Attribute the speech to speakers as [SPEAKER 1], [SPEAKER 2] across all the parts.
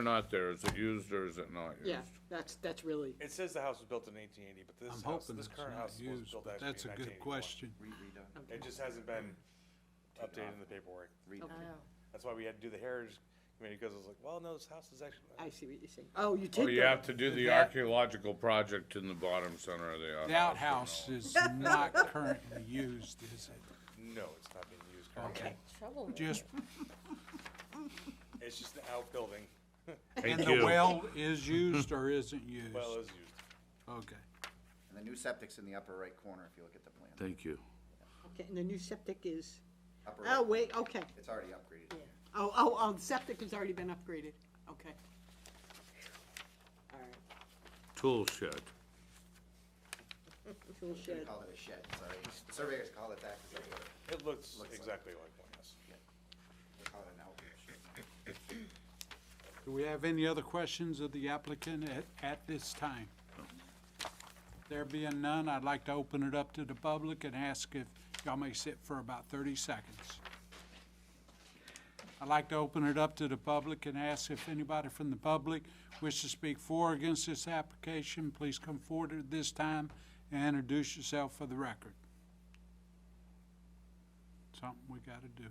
[SPEAKER 1] or not there? Is it used or is it not used?
[SPEAKER 2] Yeah, that's, that's really,
[SPEAKER 3] It says the house was built in eighteen eighty, but this
[SPEAKER 4] I'm
[SPEAKER 3] house,
[SPEAKER 4] hoping
[SPEAKER 3] this
[SPEAKER 4] it's
[SPEAKER 3] current
[SPEAKER 4] not
[SPEAKER 3] house was
[SPEAKER 4] used,
[SPEAKER 3] built
[SPEAKER 4] but
[SPEAKER 3] actually
[SPEAKER 4] that's a
[SPEAKER 3] in
[SPEAKER 4] good
[SPEAKER 3] 1981.
[SPEAKER 4] question.
[SPEAKER 3] It just hasn't been updated in the paperwork. That's why we had to do the heritage committee, because it was like, well, no, this house is actually.
[SPEAKER 2] I see what you're saying. Oh, you
[SPEAKER 1] Well,
[SPEAKER 2] take
[SPEAKER 1] you
[SPEAKER 2] that.
[SPEAKER 1] have to do the
[SPEAKER 4] That-
[SPEAKER 1] archaeological project in the bottom center of the outhouse.
[SPEAKER 4] The outhouse is not currently used, is it?
[SPEAKER 3] No, it's not being used currently.
[SPEAKER 4] Okay.
[SPEAKER 5] Trouble.
[SPEAKER 4] Just,
[SPEAKER 3] It's just an outbuilding.
[SPEAKER 4] and the well is used or isn't used?
[SPEAKER 3] Well, it is used.
[SPEAKER 4] Okay.
[SPEAKER 6] And the new septic's in the upper right corner if you look at the plan.
[SPEAKER 7] Thank you.
[SPEAKER 2] Okay, and the new septic is,
[SPEAKER 6] Upper
[SPEAKER 2] oh,
[SPEAKER 6] right.
[SPEAKER 2] wait, okay.
[SPEAKER 6] It's already upgraded.
[SPEAKER 2] Oh, oh, oh, the septic has already been upgraded, okay. All right,
[SPEAKER 7] Tool shed.
[SPEAKER 2] tool
[SPEAKER 6] They
[SPEAKER 2] shed,
[SPEAKER 6] call it a shed, sorry. Surveyors call it that because they
[SPEAKER 3] It looks
[SPEAKER 6] Looks like-
[SPEAKER 3] exactly like one, yes.
[SPEAKER 6] they call it an outdoor shed.
[SPEAKER 4] Do we have any other questions of the applicant at, at this time? There being none, I'd like to open it up to the public and ask if y'all may sit for about thirty seconds. I'd like to open it up to the public and ask if anybody from the public wishes to speak for or against this application, please come forward at this time and introduce yourself for the record. Something we gotta do.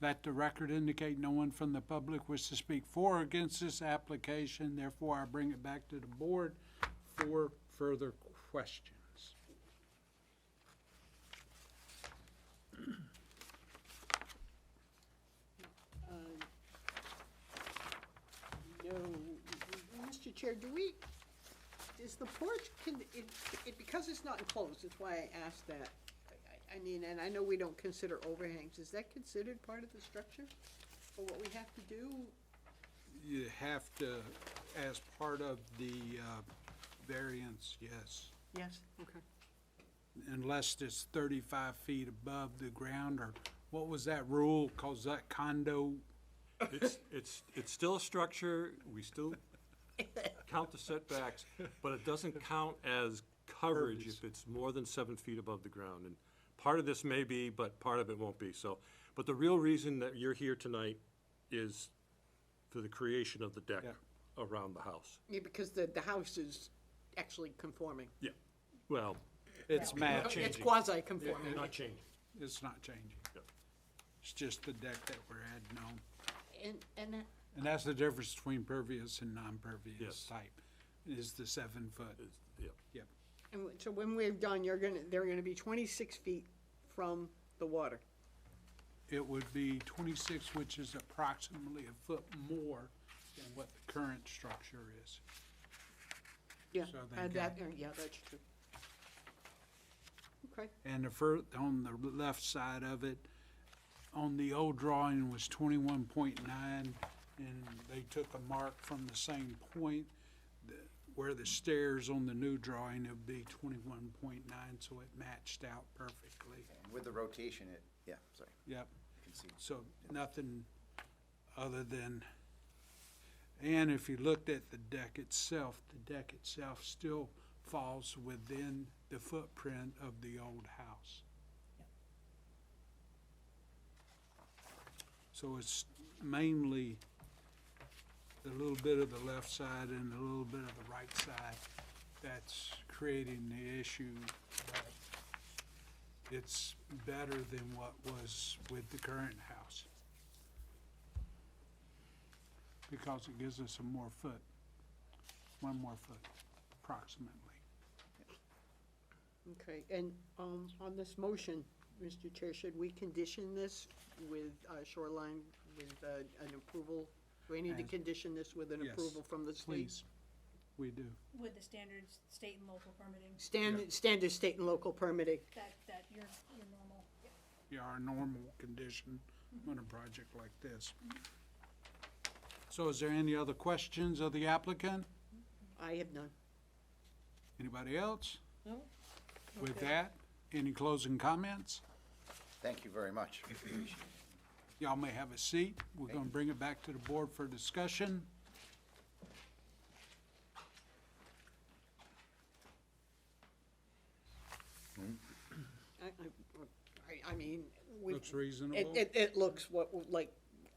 [SPEAKER 4] Let the record indicate no one from the public wishes to speak for or against this application, therefore I bring it back to the board for further questions.
[SPEAKER 2] no, Mr. um, Chair, do we, is the porch, can, it, it, because it's not enclosed, that's why I asked that. I- I, I mean, and I know we don't consider overhangs, is that considered part of the structure? For what we have to do?
[SPEAKER 4] You have to, as part of the uh, variance, yes,
[SPEAKER 2] Yes. Okay.
[SPEAKER 4] unless it's thirty-five feet above the ground, or what was that rule, cause that condo,
[SPEAKER 8] It's, it's, it's still a structure, we still count the setbacks, but it doesn't count as coverage if it's more than seven feet above the ground. And part of this may be, but part of it won't be, so. But the real reason that you're here tonight is for the creation of the deck around the house.
[SPEAKER 2] Yeah, because the, the house is actually conforming.
[SPEAKER 8] Yeah. Well,
[SPEAKER 4] it's matching,
[SPEAKER 2] It's quasi-conforming.
[SPEAKER 8] not changing.
[SPEAKER 4] it's not changing.
[SPEAKER 8] Yeah.
[SPEAKER 4] It's just the deck that we're adding on.
[SPEAKER 2] And, and that-
[SPEAKER 4] And that's the difference between pervious and non-pervious
[SPEAKER 8] Yes.
[SPEAKER 4] type, is the seven foot.
[SPEAKER 8] It's- Yeah.
[SPEAKER 4] Yep.
[SPEAKER 2] And w- so when we're done, you're gonna, they're gonna be twenty-six feet from the water.
[SPEAKER 4] It would be twenty-six, which is approximately a foot more than what the current structure is.
[SPEAKER 2] Yeah,
[SPEAKER 4] So then
[SPEAKER 2] and that,
[SPEAKER 4] got-
[SPEAKER 2] uh, yeah, that's true. Okay,
[SPEAKER 4] And the fir, on the left side of it, on the old drawing was twenty-one point nine, and they took a mark from the same point. The- Where the stairs on the new drawing would be twenty-one point nine, so it matched out perfectly.
[SPEAKER 6] And With the rotation, it, yeah, sorry,
[SPEAKER 4] Yep.
[SPEAKER 6] you can see.
[SPEAKER 4] So nothing other than, and if you looked at the deck itself, the deck itself still falls within the footprint of the old house. So it's mainly the little bit of the left side and a little bit of the right side that's creating the issue. It's better than what was with the current house. Because it gives us a more foot, one more foot approximately.
[SPEAKER 2] okay, and, um, on this motion, Mr. Chair, should we condition this with uh, shoreline, with, uh, an approval? Do we need to
[SPEAKER 4] As-
[SPEAKER 2] condition this with an
[SPEAKER 4] Yes,
[SPEAKER 2] approval from the state?
[SPEAKER 4] Please, we do.
[SPEAKER 5] With the standards, state and local permitting,
[SPEAKER 2] Standard, standard state and local permitting,
[SPEAKER 5] that, that your, your normal.
[SPEAKER 4] Yeah, our normal condition on a project like this. So is there any other questions of the applicant?
[SPEAKER 2] I have none.
[SPEAKER 4] Anybody else?
[SPEAKER 2] No.
[SPEAKER 4] With that, any closing comments?
[SPEAKER 6] Thank you very much.
[SPEAKER 4] Y'all may have a seat. We're gonna bring it back to the board for discussion.
[SPEAKER 2] I, I, I- I mean, we.
[SPEAKER 4] Looks reasonable.
[SPEAKER 2] It, it, it looks what, like